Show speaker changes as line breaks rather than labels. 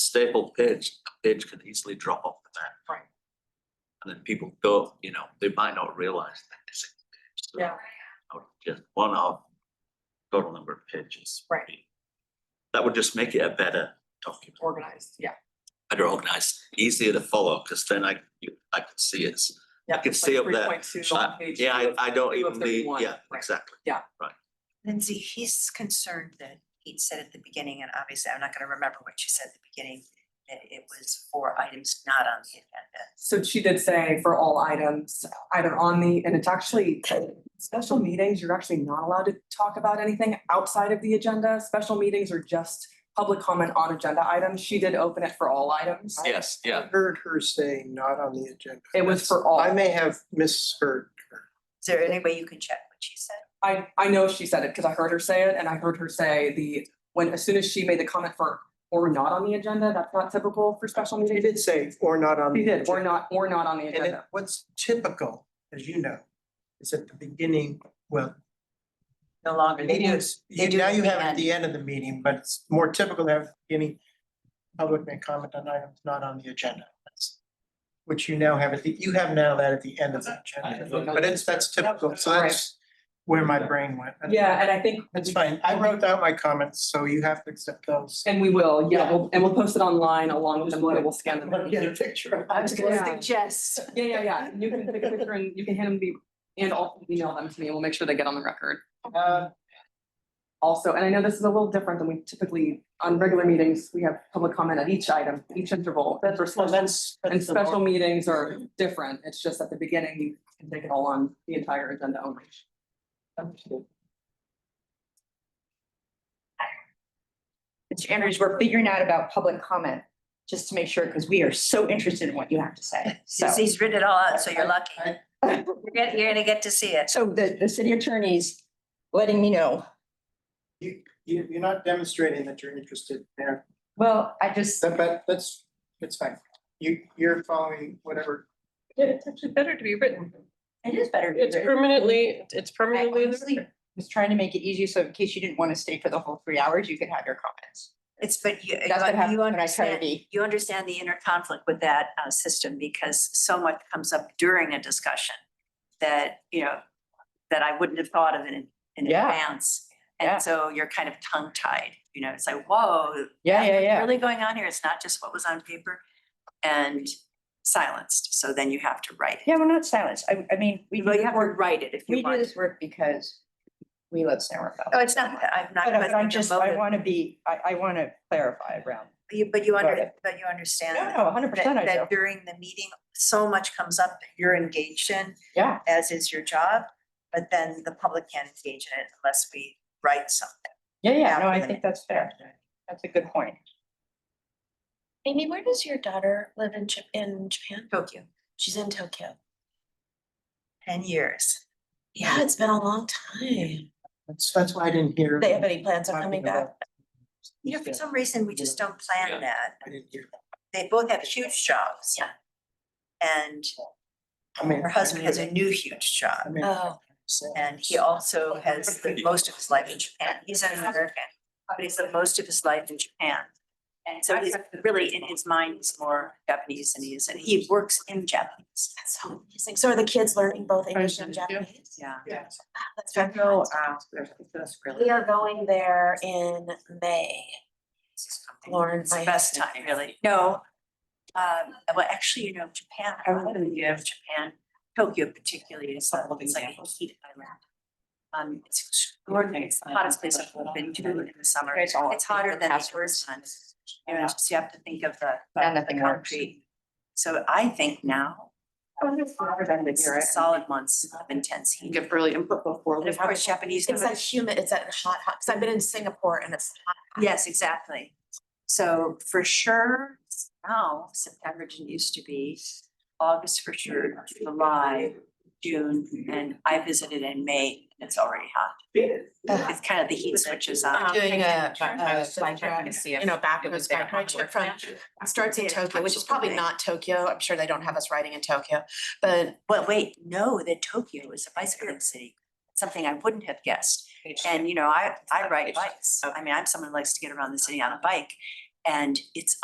stapled page, a page can easily drop off the back.
Right.
And then people go, you know, they might not realize that it's a page. So
Yeah.
I would Just one of total number of pages. would
Right.
be- That would just make it a better document,
organized, yeah.
better organized, easier to follow, because then I, you- I can see it's I
yeah,
can
it's
see
like
up there.
3.2, the
I-
whole page
Yeah,
two
I,
of-
I don't
two of
even need,
31,
yeah,
right.
exactly.
Lindsay, he's concerned that he'd said at the beginning, and obviously I'm not gonna remember what you said at the beginning, that it was for items not on the agenda.
So she did say for all items, either on the, and it's actually, special meetings, you're actually not allowed to talk about anything outside of the agenda. Special meetings are just public comment on agenda items. She did open it for all items.
Yes,
I
yeah,
Heard her saying not on the agenda.
It was for all.
I may have misheard her.
Is there any way you can check what she said?
I, I know she said it because I heard her say it and I heard her say the, when, as soon as she made the comment for, or not on the agenda, that's not typical for special
She
meetings.
did say, or not on.
She
the
did, or
agenda.
not, or not on the
And it-
agenda.
what's typical, as you know, is at the beginning, well.
No longer, they do,
it's-
they
you-
do
Now
it at
you
the
have it at the end of the meeting, but it's more typical to have at the beginning. Public may comment on items not on the agenda. That's- Which you now have, at the you have now that at the end of the agenda, but it's, that's typical, so that's where my brain went.
Yeah, and I think.
That's fine. I wrote out my comments, so you have to accept those.
And we will, yeah, we'll, and we'll post it online along with the letter, we'll scan them. Yeah,
Get a picture.
I was gonna
Yeah.
suggest,
yeah, yeah, you can take a picture and you can hand them to me, and I'll email them to me, and we'll make sure they get on the record.
Uh,
Also, and I know this is a little different than we typically, on regular meetings, we have public comment at each item, each interval. That's for
well,
special
that's.
And
that's the
special
more-
meetings are different. It's just at the beginning, you can take it all on the entire agenda only.
Mr. Andrews, we're figuring out about public comment, just to make sure, because we are so interested in what you have to say, so.
he's, he's written it all out, so you're lucky.
I-
You're gonna, you're gonna get to see it.
So the, the city attorney's letting me know.
You, you, you're not demonstrating that you're interested there,
Well, I just,
that, that, that's, it's fine. You, you're following whatever.
It's actually better to be written.
it is better.
It's permanently, it's
I
permanently. in the
honestly
record.
was trying to make it easier, so in case you didn't want to stay for the whole three hours, you could have your comments.
It's, but you,
That's what happens
you
when I try to
understand,
be.
you understand the inner conflict with that, uh, system because so much comes up during a discussion that, you know, that I wouldn't have thought of in, in
Yeah.
advance.
Yeah.
And so you're kind of tongue tied, you know, it's like, whoa,
Yeah, yeah,
what's
yeah.
Really going on here. It's not just what was on paper and silenced. So then you have to write it.
Yeah, we're not silenced. I, I mean, we
Well,
do
you
this
have to
work,
write it if
we
you
do
want.
this work because we let Sarah
Oh,
know.
it's not, I'm not.
But I- but I'm
questioning your
just, I
motive,
want to be, I, I want to clarify around.
But you, but you under,
Right.
but you understand
No,
that-
no, hundred percent
that,
I do.
that during the meeting, so much comes up that you're engaged in,
Yeah,
as is your job. But then the public can't engage in it unless we write something.
yeah, yeah. No,
After
I
the
think that's fair. That's a good point.
Amy, where does your daughter live in Jap- in Japan?
Tokyo,
She's in Tokyo.
ten years.
Yeah, it's been a long time.
That's, that's why I didn't hear.
They have any plans on coming
talking about-
back?
You know, for some reason, we just don't plan that.
I didn't hear. that.
They both have huge jobs.
Yeah.
And
I mean.
her husband has a new huge
I
job.
mean.
Oh,
And he also has the most of his life in Japan. He's an American, but he's the most of his life in Japan. And so he's really, in his mind, he's more Japanese than he is, and he works in Japanese.
that's so amazing. So are the kids learning both English and Japanese?
Yeah.
Wow, That's
I
very
know,
cool.
uh, there's that's really.
We are going there in May.
It's just something-
Lauren,
It's the
my
best
husband-
time, really. No. Um, well, actually, you know, Japan, I love the uh, idea of Japan, Tokyo particularly is, uh, it's like a heat island. Um, it's extraordinary, it's the hottest place I've ever been to in the summer.
It's all-
uh, It's hotter than the
Passwords.
first one. You know, so you have to think of the,
Yeah,
the
nothing works.
concrete. So I think now. Oh, it's
right?
Solid months of intense heat.
Give early input before.
And
we
of
have
course,
it.
Japanese.
It's that humid, it's that hot, hot, because I've been in Singapore and it's hot.
Yes, exactly. So for sure, now September didn't used to be, August for sure, July, June, and I visited in May, and it's already hot. It's kind of the heat switches on.
Doing a,
a
you know, back of his bike ride trip from, it starts in
Yeah,
Tokyo, which is
absolutely.
probably not Tokyo. I'm sure they don't have us riding in Tokyo, but
Well, wait, no, that Tokyo is a bicycling city, something I wouldn't have guessed. And you know, I I ride bikes. I mean, I'm someone who likes to get around the city on a bike, and it's